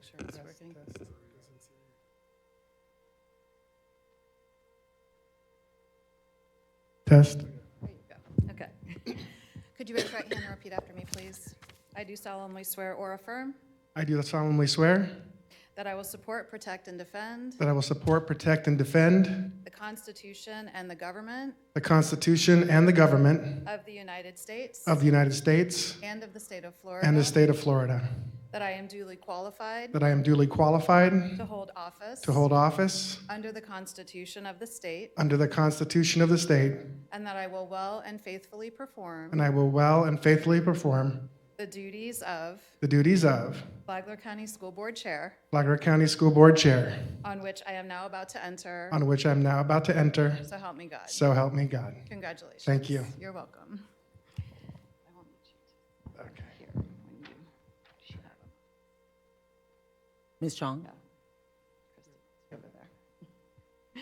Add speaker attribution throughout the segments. Speaker 1: sure it's working.
Speaker 2: Test.
Speaker 1: There you go. Okay. Could you raise your right hand and repeat after me, please? I do solemnly swear or affirm
Speaker 2: I do solemnly swear
Speaker 1: that I will support, protect, and defend
Speaker 2: that I will support, protect, and defend
Speaker 1: the Constitution and the government
Speaker 2: the Constitution and the government
Speaker 1: of the United States
Speaker 2: of the United States
Speaker 1: and of the state of Florida.
Speaker 2: Uh, and the state of Florida,
Speaker 1: That I am duly qualified
Speaker 2: that I am duly qualified
Speaker 1: to hold office
Speaker 2: to hold office
Speaker 1: under the Constitution of the state,
Speaker 2: under the Constitution of the state,
Speaker 1: and that I will well and faithfully perform
Speaker 2: and I will well and faithfully perform
Speaker 1: the duties of
Speaker 2: the duties of
Speaker 1: Flagler County School Board Chair,
Speaker 2: Blackhawk County School Board Chair,
Speaker 1: on which I am now about to enter.
Speaker 2: on which I am now about to enter.
Speaker 1: So help me God.
Speaker 2: So help me God.
Speaker 1: Congratulations.
Speaker 2: Thank you.
Speaker 1: You're welcome. I will meet you
Speaker 2: Okay.
Speaker 1: here when you- she had them.
Speaker 3: Ms. Chong?
Speaker 1: Kristen, it's Over there.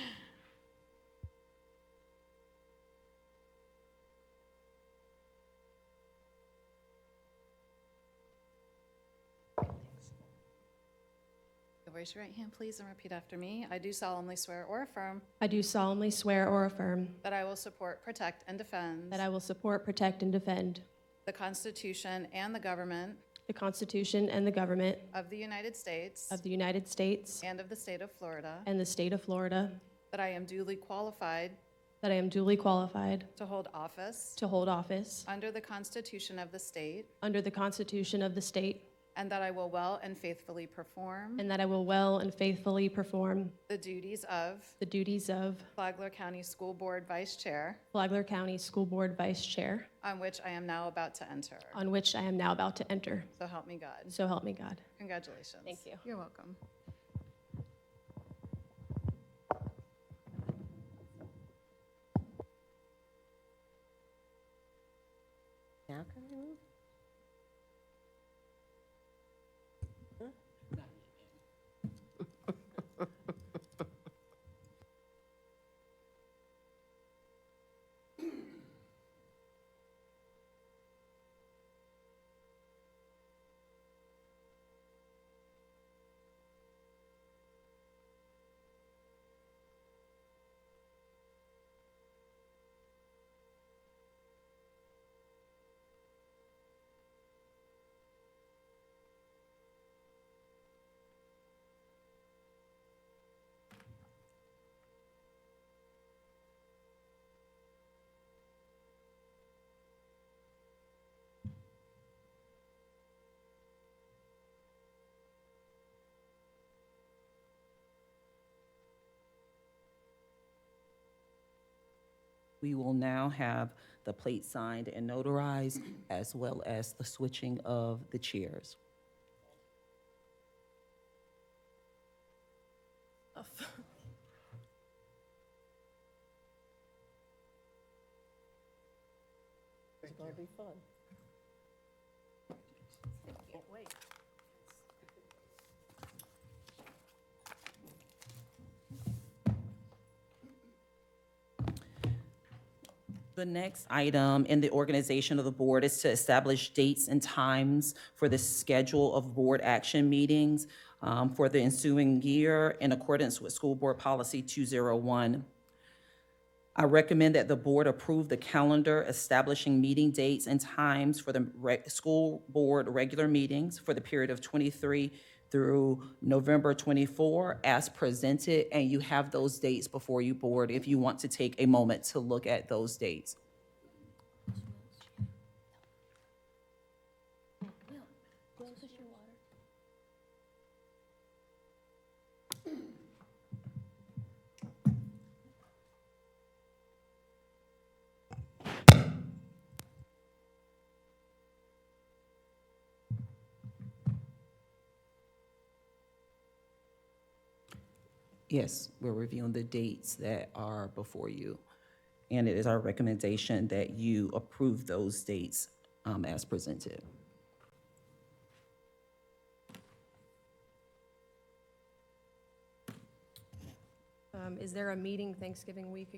Speaker 1: Raise your right hand, please, and repeat after me. I do solemnly swear or affirm
Speaker 4: I do solemnly swear or affirm
Speaker 1: that I will support, protect, and defend
Speaker 4: that I will support, protect, and defend
Speaker 1: the Constitution and the government
Speaker 4: the Constitution and the government
Speaker 1: of the United States
Speaker 4: of the United States
Speaker 1: and of the state of Florida,
Speaker 4: and the state of Florida,
Speaker 1: that I am duly qualified
Speaker 4: that I am duly qualified
Speaker 1: to hold office
Speaker 4: to hold office
Speaker 1: under the Constitution of the state,
Speaker 4: under the Constitution of the state,
Speaker 1: and that I will well and faithfully perform
Speaker 4: and that I will well and faithfully perform
Speaker 1: the duties of
Speaker 4: the duties of
Speaker 1: Flagler County School Board Vice Chair,
Speaker 4: Flagler County School Board Vice Chair,
Speaker 1: on which I am now about to enter.
Speaker 4: on which I am now about to enter.
Speaker 1: So help me God.
Speaker 4: So help me God.
Speaker 1: Congratulations.
Speaker 4: Thank you.
Speaker 1: You're welcome.
Speaker 3: Now can I move? We will now have the plate signed and notarized, as well as the switching of the chairs. It's gonna be fun. Can't wait. The next item in the organization of the board is to establish dates and times for the schedule of board action meetings um, for the ensuing year in accordance with School Board Policy 201. I recommend that the board approve the calendar establishing meeting dates and times for the re- school board regular meetings for the period of 23 through November 24 as presented, and you have those dates before you board if you want to take a moment to look at those dates. Yes, we're reviewing the dates that are before you, and it is our recommendation that you approve those dates um, as presented.
Speaker 4: Um, Is there a meeting Thanksgiving week